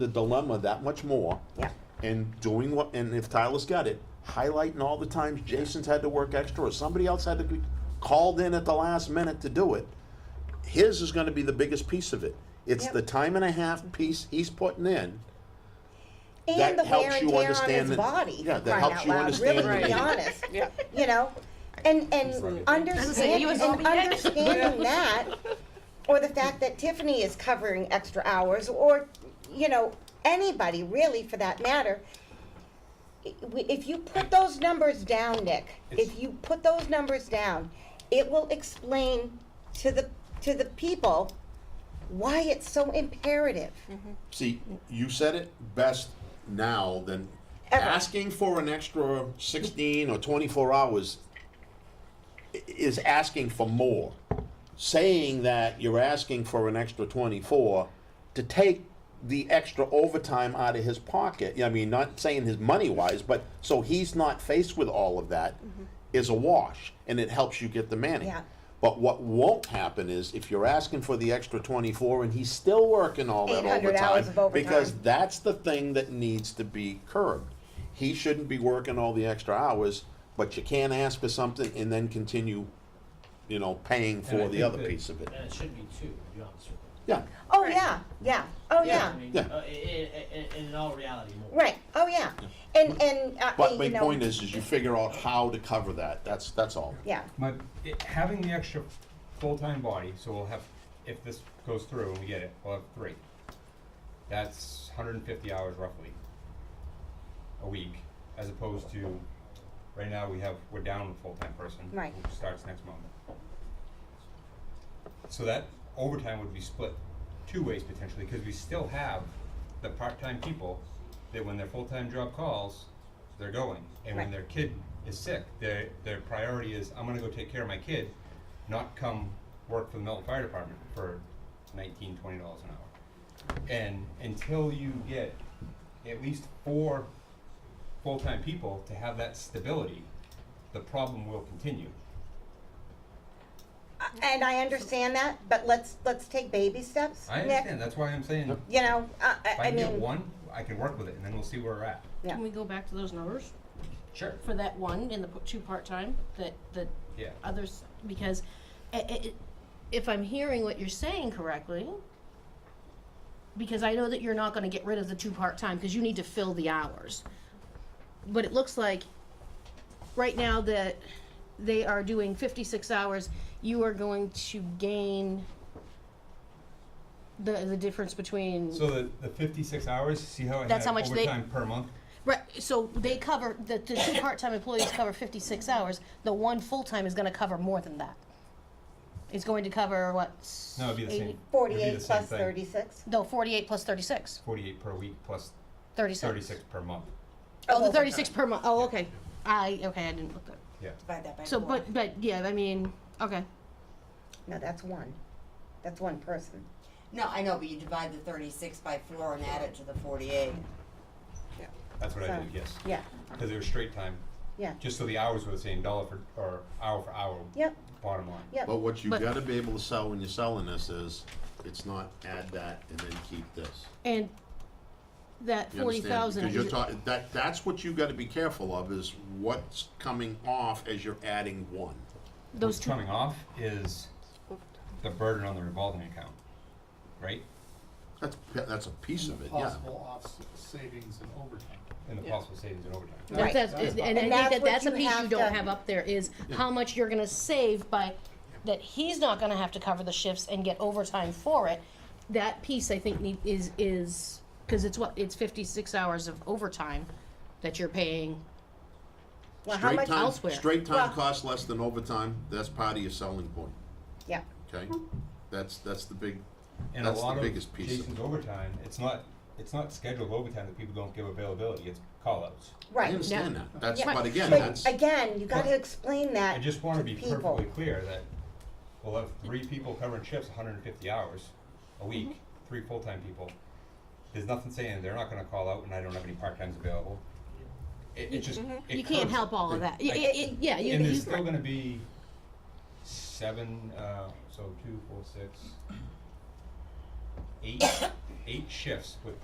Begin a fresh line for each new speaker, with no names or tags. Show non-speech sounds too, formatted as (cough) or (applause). the dilemma that much more.
Yeah.
And doing what, and if Tyler's got it, highlighting all the times Jason's had to work extra or somebody else had to be called in at the last minute to do it. His is gonna be the biggest piece of it. It's
Yep.
the time and a half piece he's putting in.
And
That
the
helps
wear and
you
tear on
understand
his
that-
body,
yeah, that
for crying
helps
out
you
loud,
understand
really, to be
that-
(laughs)
honest,
Yeah.
you know? And, and understand,
you was
and
all dead. (laughs)
understanding that, or the fact that Tiffany is covering extra hours, or, you know, anybody really for that matter. I- we- If you put those numbers down, Nick, if you put those numbers down, it will explain to the, to the people why it's so imperative.
Mm-hmm.
See, you said it best now than
Ever.
asking for an extra 16 or 24 hours i- is asking for more. Saying that you're asking for an extra 24 to take the extra overtime out of his pocket, I mean, not saying his money wise, but so he's not faced with all of that, is a wash and it helps you get the manning.
Mm-hmm. Yeah.
But what won't happen is if you're asking for the extra 24 and he's still working all that
800
overtime,
hours of overtime.
because that's the thing that needs to be curbed. He shouldn't be working all the extra hours, but you can't ask for something and then continue, you know, paying
And I
for the
think
other
that-
piece of it.
And it should be two, to be honest with you.
Yeah,
Oh,
Right.
yeah, yeah, oh, yeah.
I mean,
Yeah.
uh, i- i- i- in all reality, more.
Right. Oh yeah. And and uh,
but
you
my
know,
point is, is you figure out how to cover that. That's, that's all.
yeah.
My, it, having the extra full-time body, so we'll have, if this goes through and we get it, we'll have three. That's hundred and fifty hours roughly, a week, as opposed to, right now, we have, we're down a full-time person.
Right.
Who starts next month. So that overtime would be split two ways potentially, cause we still have the part-time people that when their full-time job calls, they're going. And when
Right.
their kid is sick, their, their priority is, I'm gonna go take care of my kid, not come work for the Milton Fire Department for nineteen, twenty dollars an hour. And until you get at least four full-time people to have that stability, the problem will continue.
And I understand that, but let's let's take baby steps. Nick.
I understand, that's why I'm saying, if
You know, uh, I, I
I can
mean,
get one, I can work with it, and then we'll see where we're at.
Yeah.
Can we go back to those numbers
Sure.
for that one and the p- two part-time that, that
Yeah.
others, because i- i- i- if I'm hearing what you're saying correctly, because I know that you're not gonna get rid of the two part-time, because you need to fill the hours. But it looks like right now that they are doing fifty-six hours, you are going to gain the, the difference between
So the, the fifty-six hours, see how I
That's
had
how much they-
overtime per month?
Right, so they cover, the, the two part-time employees cover fifty-six hours, the one full-time is gonna cover more than that. It's going to cover what? s-
No, it'd be the same.
80
it'd be
48
the same
plus
thing.
36.
No, forty-eight plus 36.
Forty-eight per week plus
36.
thirty-six per month,
Oh, the
Overtime.
thirty-six per month, oh, okay, I, okay, I didn't look that,
yeah.
Divide that by
so,
four.
but, but, yeah, I mean, okay,
No, that's one. That's one person.
No, I know, but you divide the thirty-six by four and add it to the forty-eight.
That's what I
So-
did, yes.
Yeah.
Cause it was straight time,
Yeah.
just so the hours were the same, dollar for, or hour for hour,
Yep.
bottom line.
Yep.
But what you
But-
gotta be able to sell when you're selling this is, it's not add that and then keep this.
and that
You
forty thousand.
Because you're talking, that, that's what you gotta be careful of, is what's coming off as you're adding one.
Those
What's
two,
coming off is the burden on the revolving account, right?
That's, that's a piece of it, yeah.
possible off savings and overtime.
And the possible savings in overtime.
That- that's,
That's
and I think
that's
that
what
that's a
you
piece you
have
don't
to-
have up there, is how much you're gonna save by, that he's not gonna have to cover the shifts and get overtime for it. That piece, I think, need, is, is, cause it's what, it's fifty-six hours of overtime that you're paying.
Well, how
Straight
much?
time-
elsewhere?
Straight time
Well-
costs less than overtime, that's part of your selling point,
Yeah.
okay?
Hmm.
That's, that's the big,
And
That's
a
the
lot
biggest
of
piece of
Jason's overtime, it's not, it's not scheduled overtime that people don't give availability, it's call-outs.
I
Right.
understand that, that's,
Yeah.
but again,
But
that's,
again, you got to explain
Uh,
that
I just wanna
to
be
people.
perfectly clear that we'll have three people covering shifts, hundred and fifty hours a week,
Mm-hmm.
three full-time people. There's nothing saying they're not gonna call out and I don't have any part-times available. It, it just, it
You can't
curbs it.
help all of that. Y-
I-
y- y- Yeah, you,
And there's
you,
still gonna be seven, uh, so two, four, six, eight, eight shifts with